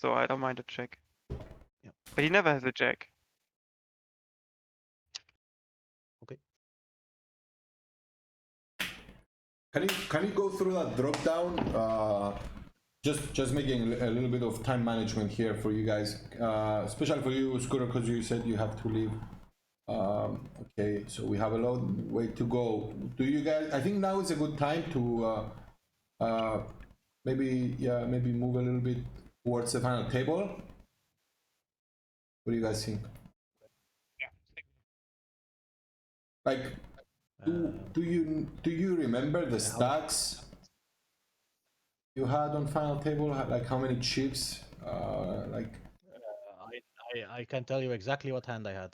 so I don't mind a check. Yep. But he never has a jack. Can you can you go through that drop down? Uh, just just making a little bit of time management here for you guys, uh, especially for you, Scooter, because you said you have to leave. Um, okay, so we have a long way to go. Do you guys? I think now is a good time to uh, uh, maybe yeah maybe move a little bit towards the final table. What do you guys think? Like do, Uh, do you do you remember the how- stacks you had on final table? Ha- Like how many chips? Uh, like I, I I can tell you exactly what hand I had.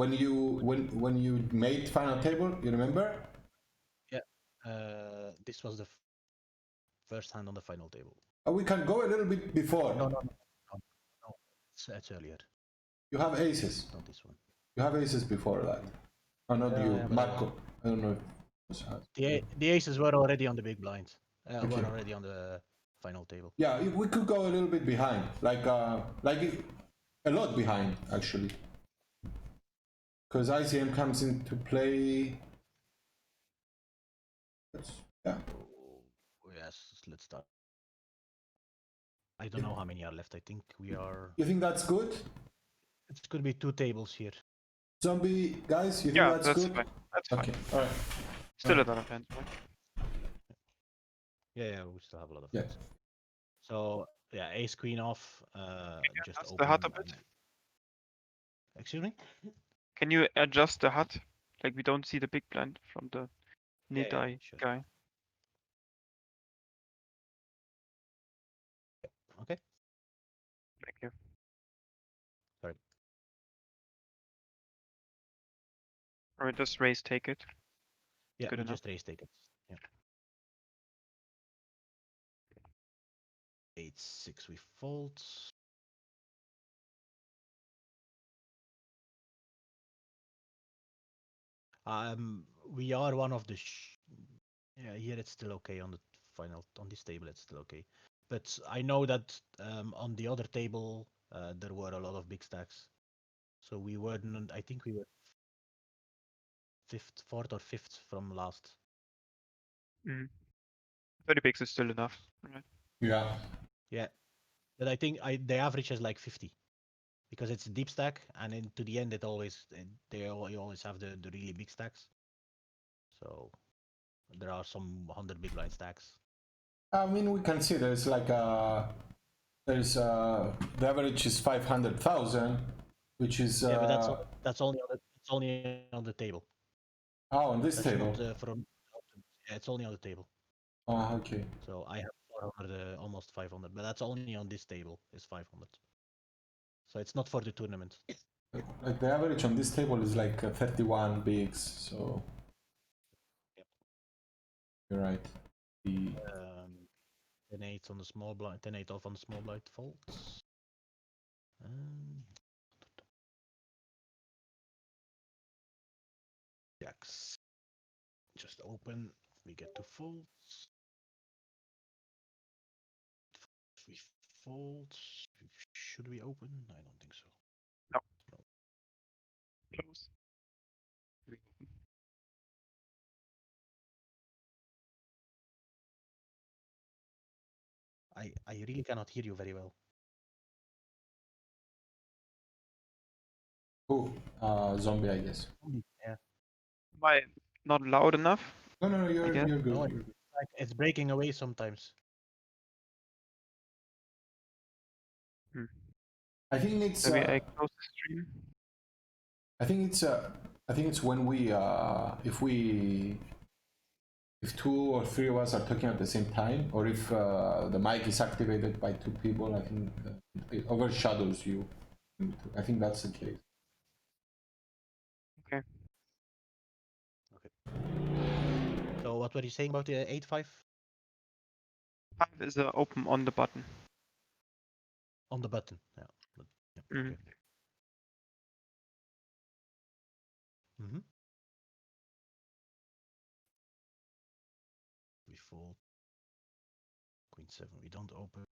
when you when when you made final table, you remember? Uh, this was the f- first hand on the final table. Uh, we can go a little bit before. No, no, no, no, no. It's, it's earlier. You have aces. Not this one. You have aces before that. Oh, not Yeah, you, yeah, but- Marco. I don't know. If The a- the aces were already on the big blind. Uh, Okay. Were already on the final table. yeah, if we could go a little bit behind, like uh, like it- a lot behind actually, because ICM comes into play. That's, yeah. Oh, Yes, let's start. I don't know how many are left. I think we are. You think that's good? It could be two tables here. Zombie guys, you think yeah, that's, that's, good? fine. That's fine. Okay, alright. Still a lot of hands. right? Yeah, yeah, we still have a lot of. Yeah. hands. So yeah, ace queen off. Uh, just adjust the heart a open bit? and- Excuse me. Can you adjust the hut? Like we don't see the big blind from the Yeah, yeah, Nidai sure. guy. Okay. Thank you. Sorry. Or just raise take it. Yeah, Good we enough. just raise tickets. Yeah. Eight six we fold. Um, we are one of the. Sh- yeah, here it's still okay on the final on this table. It's still okay, but I know that um, on the other table uh, there were a lot of big stacks, so we weren't. I think we were fifth, fourth or fifth from last. Thirty bigs is still enough. Right. Yeah. But I think I the average is like 50 because it's a deep stack, and then to the end it always eh, they al- you always have the the really big stacks. So there are some 100 big blind stacks. I mean, we can see there's like a there's uh the average is five hundred thousand, which is uh, yeah, but that's o- that's only on the, it's only on the table. oh on this That's table. not, uh, from yeah, it's only on the table. Oh, okay. So I have 400, uh, almost 500, but that's only on this table is 500. So it's not for the tournament. Like the average on this table is like uh, 31 bigs, so. Yep. You're right. The- Um, 10 8 on the small blind, 10 8 off on the small blind folds. Um, jacks. Just open, we get to folds. We fold. Should we open? I don't think so. Close. I, I really cannot hear you very well. Oh, uh, zombie, I guess. Am I not loud enough? No, no, no, you're, guess- you're good. No, you're good. Like, it's breaking away sometimes. I think it's. Maybe uh, I close the stream. I think it's uh, I think it's when we uh, if we if two or three of us are talking at the same time, or if uh, the mic is activated by two people, I think uh, it overshadows you. I think that's the case. So what were you saying about the 8 5 Five is uh, open on the button. on the button? Yeah. but- yeah, Mhm. okay. Mhm. We fold. Queen seven. We don't open.